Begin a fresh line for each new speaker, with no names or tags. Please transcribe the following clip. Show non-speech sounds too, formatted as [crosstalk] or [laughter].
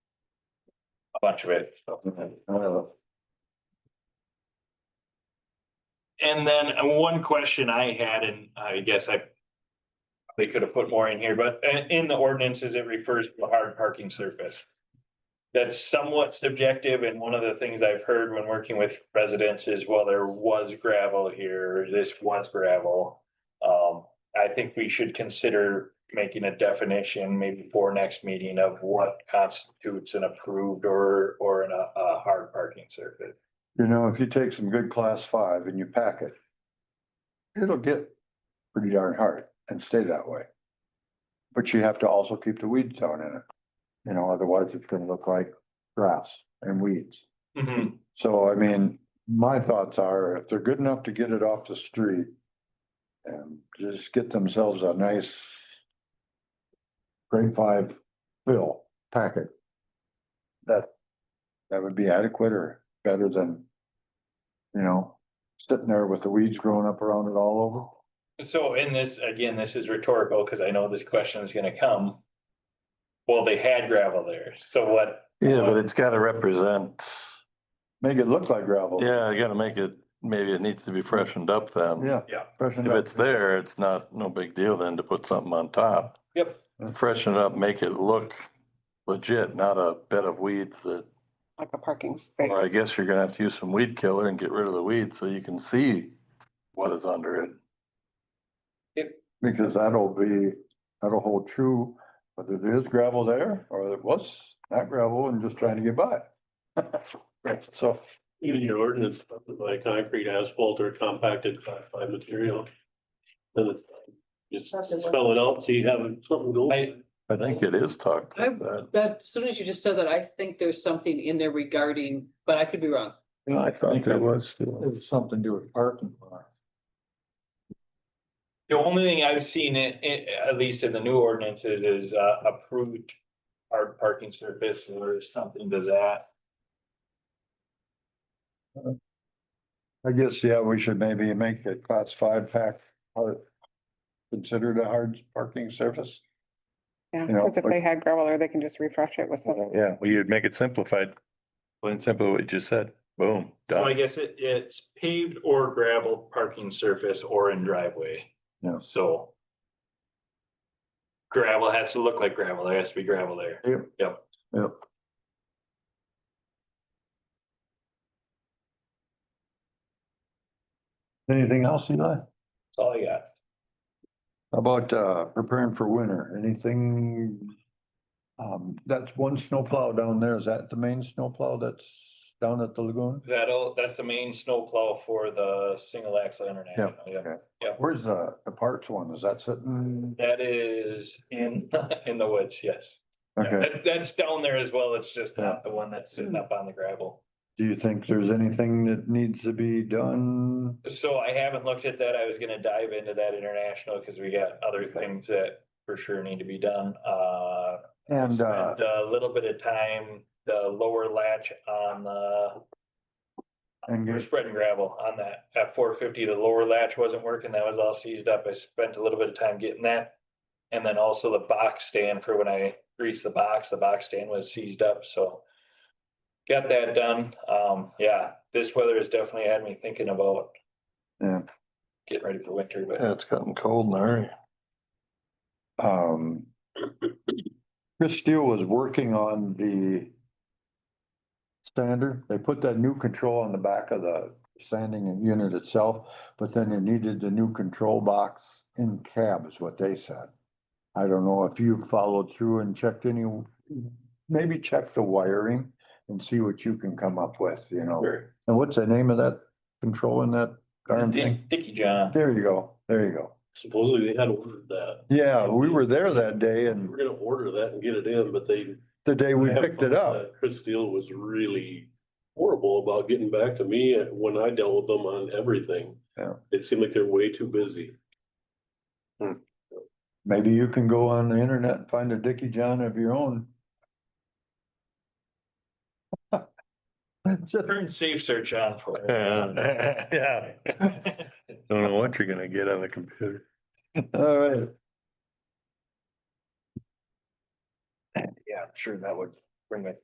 bunch of it. And then uh, one question I had, and I guess I. They could have put more in here, but uh, in the ordinances, it refers to a hard parking surface. That's somewhat subjective, and one of the things I've heard when working with residents is, well, there was gravel here, this was gravel. Um, I think we should consider making a definition maybe for next meeting of what constitutes an approved or, or an, uh, a hard parking surface.
You know, if you take some good class five and you pack it, it'll get pretty darn hard and stay that way. But you have to also keep the weeds down in it, you know, otherwise it's gonna look like grass and weeds. So I mean, my thoughts are if they're good enough to get it off the street and just get themselves a nice grade five fill packet, that, that would be adequate or better than, you know, sitting there with the weeds growing up around it all
So in this, again, this is rhetorical, because I know this question is gonna come. Well, they had gravel there, so what,
Yeah, but it's gotta represent,
over. Make it look like gravel.
yeah, you gotta make it, maybe it needs to be freshened up then.
Yeah.
Yeah.
Freshen
If
up.
it's there, it's not, no big deal then to put something on top.
Yep.
Freshen it up, make it look legit, not a bed of weeds that,
like a parking space.
or I guess you're gonna have to use some weed killer and get rid of the weeds so you can see what is under it.
Because that'll be, that'll hold true, whether there is gravel there or it was not gravel and just trying to get by. [laughs] Right, so,
Even your ordinance, like concrete, asphalt or compacted class five material. Then it's, you spell it out, so you have something
I-
going.
I think it is talked like that.
That, as soon as you just said that, I think there's something in there regarding, but I could be wrong.
I thought
there
was.
it was something to do with parking lot.
the only thing I've seen it, it, at least in the new ordinances, is, uh, approved. Hard parking surface or something to that,
I guess, yeah, we should maybe make it class five fact, uh, considered a hard parking surface.
Yeah,
You know,
but if
like-
they had gravel or they can just refresh it with some.
Yeah, well, you'd make it simplified. Plain simple, what you just said, boom,
so I
done.
guess it, it's paved or gravel parking surface or in driveway.
Yeah.
So. Gravel has to look like gravel, there has to be gravel there.
Yep. Anything else, Eli?
That's all I got.
How About uh preparing for winter, anything? Um, that's one snowplow down there. Is that the main snowplow that's down at the lagoon?
That'll, that's the main snowplow for the single axle international.
okay.
Yeah,
Where's the the parts one? Is that sitting?
that is in, [laughs] in the woods, yes.
Okay,
That- That's down there as well. It's just not the one that's sitting up on the gravel.
do you think there's anything that needs to be done?
So I haven't looked at that. I was gonna dive into that international because we got other things that for sure need to be done. Uh,
And uh,
spent a little bit of time, the lower latch on the
and
We're
get-
spreading gravel on that. At four fifty, the lower latch wasn't working. That was all seized up. I spent a little bit of time getting that. And then also the box stand for when I greased the box, the box stand was seized up, so. Got that done. Um, yeah, this weather has definitely had me thinking about
Yeah.
getting ready for winter, but.
Yeah, it's gotten cold in a hurry.
um. Chris Steele was working on the. Sander, they put that new control on the back of the sanding unit itself, but then they needed the new control box in cab is what they said. I don't know if you followed through and checked any, maybe check the wiring and see what you can come up with, you know. And what's the name of that control in that darn thing?
Dick- Dickie John,
There you go, there you go.
Supposedly they had ordered that.
Yeah, we were there that day
We
and
We're gonna order that and get it in, but they.
the day we picked it up.
Chris Steele was really horrible about getting back to me when I dealt with them on everything.
Yeah.
It seemed like they're way too busy.
Maybe you can go on the internet and find a Dickie John of your own. [laughs] Just-
turn safe search on for. me.
Yeah, [laughs]
[laughs]
don't know what you're gonna get on the computer.
All right. Yeah, I'm sure that would bring it